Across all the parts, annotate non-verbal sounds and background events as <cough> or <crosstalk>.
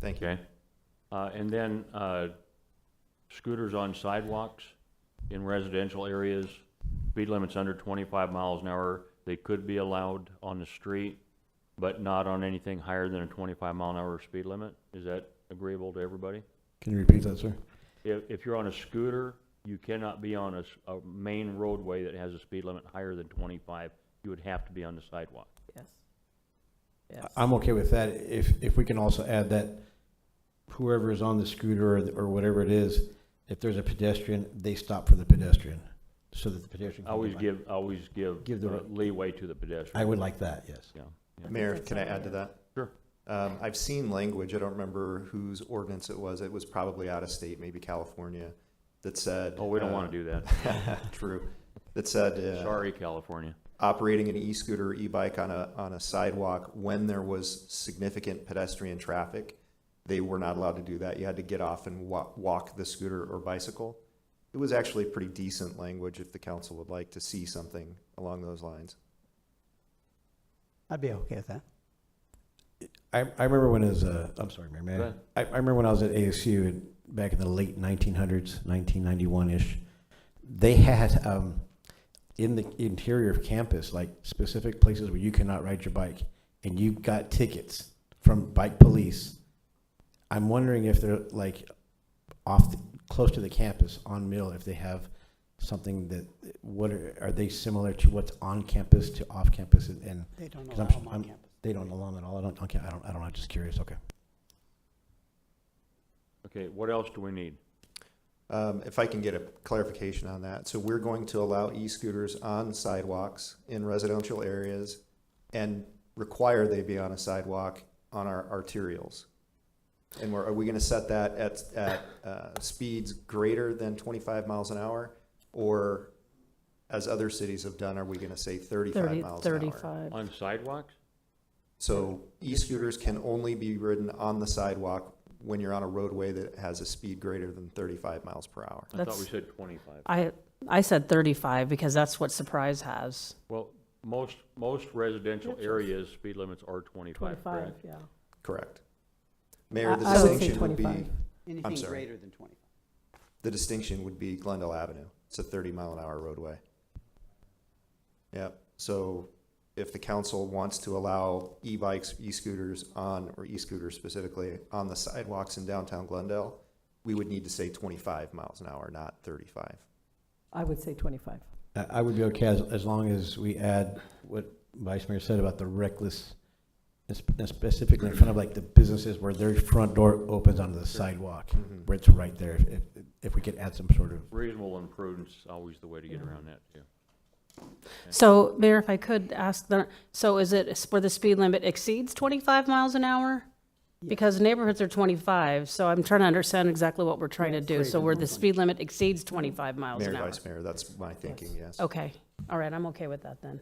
Thank you. Okay. Uh, and then, uh, scooters on sidewalks in residential areas, speed limits under twenty-five miles an hour, they could be allowed on the street, but not on anything higher than a twenty-five mile an hour speed limit. Is that agreeable to everybody? Can you repeat that, sir? If, if you're on a scooter, you cannot be on a, s- a main roadway that has a speed limit higher than twenty-five. You would have to be on the sidewalk. Yes. Yes. I'm okay with that. If, if we can also add that whoever is on the scooter or, or whatever it is, if there's a pedestrian, they stop for the pedestrian so that the pedestrian. I can Always by. give, I always give Give the- uh, leeway to the I pedestrian. would like that, yes. Yeah. Mayor, That's can I all add to I that? Sure. Um, I've seen language, I don't remember whose ordinance it was, it was probably out of state, maybe California, that said. Oh, we don't want to do that. do. <laughs> True, that said, uh, Sorry, California. operating an e-scooter or e-bike on a, on a sidewalk when there was significant pedestrian traffic, they were not allowed to do that. You had to get off and wa- walk the scooter or bicycle. It was actually pretty decent language if the council would like to see something along those lines. I'd be okay with that. I, I remember when it was, uh, I'm sorry, Mayor, may I? Go ahead. I, I remember when I was at ASU in, back in the late 1900s, 1991-ish, they had, um, in the interior of campus, like specific places where you cannot ride your bike, and you got tickets from bike police. I'm wondering if they're like off, the- close to the campus on Mill, if they have something that, what are, are they similar to what's on campus to off campus and- and They don't 'Cause allow I'm- them on I'm- campus. they don't allow them at all? I don't, okay, I don't, I don't know, I'm just curious, okay. Okay, what else do we need? Um, if I can get a clarification on that, so we're going to allow e-scooters on sidewalks in residential areas and require they be on a sidewalk on our arterials. And we're, are we gonna set that at, at, uh, speeds greater than twenty-five miles an hour? Or, as other cities have done, are we gonna say thirty-five Thirty, miles an hour? thirty-five. On sidewalks? So e-scooters can only be ridden on the sidewalk when you're on a roadway that has a speed greater than thirty-five miles per hour. I thought That's- we said twenty-five. I, I said thirty-five because that's what Surprise has. Well, most, most residential areas, speed limits are twenty-five, correct? yeah. Correct. Mayor, the I- I would say distinction would be, 25. Anything sorry. greater than twenty. the distinction would be Glendale Avenue. It's a thirty mile an hour roadway. Yep, so if the council wants to allow e-bikes, e-scooters on, or e-scooters specifically, on the sidewalks in downtown Glendale, we would need to say twenty-five miles an hour, not thirty-five. I would say 25. I I would be okay as, as long as we add what Vice Mayor said about the reckless, and sp- and specifically in front of like the businesses where their front door opens onto the sidewalk, where it's right there, if, if- if we could add some sort of, Reasonable and prudence, is always the way to get around that, too. So Mayor, if I could ask the, so is it s- where the speed limit exceeds twenty-five miles an hour? Because neighborhoods are twenty-five, so I'm trying to understand exactly what we're trying to do. So where the speed limit exceeds twenty-five miles Mayor, an hour. Vice Mayor, that's my thinking, yes. Okay, all right, I'm okay with that then.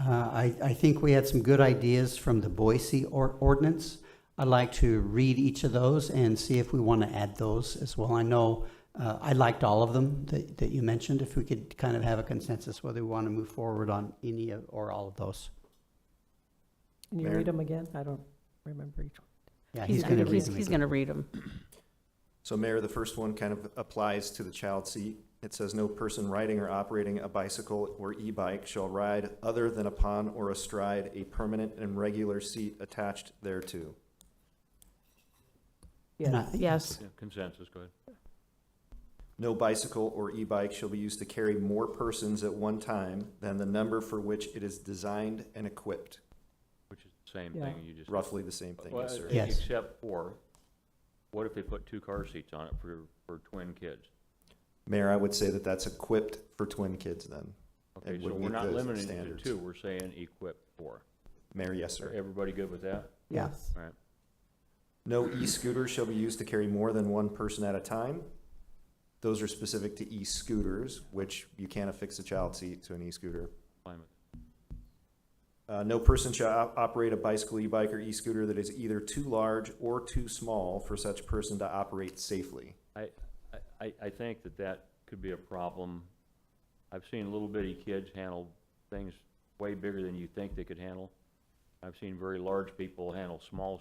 Uh, I, I think we had some good ideas from the Boise or- ordinance. I'd like to read each of those and see if we want to add those as well. I know, uh, I liked all of them that, that you mentioned. If we could kind of have a consensus whether we want to move forward on any of- or all of those. Can you Mayor? read them again? I don't remember each one. Yeah, He's he's going to gonna, read he's, them. he's again. gonna read them. So Mayor, the first one kind of applies to the child seat. It says, "No person riding or operating a bicycle or e-bike shall ride other than upon or astride a permanent and regular seat attached thereto." And Yeah, I- Yes, Yeah, Consensus, go ahead. No bicycle or e-bike shall be used to carry more persons at one time than the number for which it is designed and equipped. Which is the same Yeah. thing you just. Roughly the same thing, Well, e- yes, sir. Yeah. Yes. Except for, what if they put two car seats on it for, for twin kids? Mayor, I would say that that's equipped for twin kids then. Okay, It so would we're meet not those limiting it to standards. two, we're saying equipped for. Mayor, yes, Are sir. everybody good with that? Yeah. yes. All right. No e-scooter shall be used to carry more than one person at a time. Those are specific to e-scooters, which you can't affix a child seat to an e-scooter. fine with- Uh, no person shall op- operate a bicycle, e-bike, or e-scooter that is either too large or too small for such person to operate safely. I, I- I, I think that that could be a problem. I've seen little bitty kids handle things way bigger than you think they could handle. I've seen very large people handle small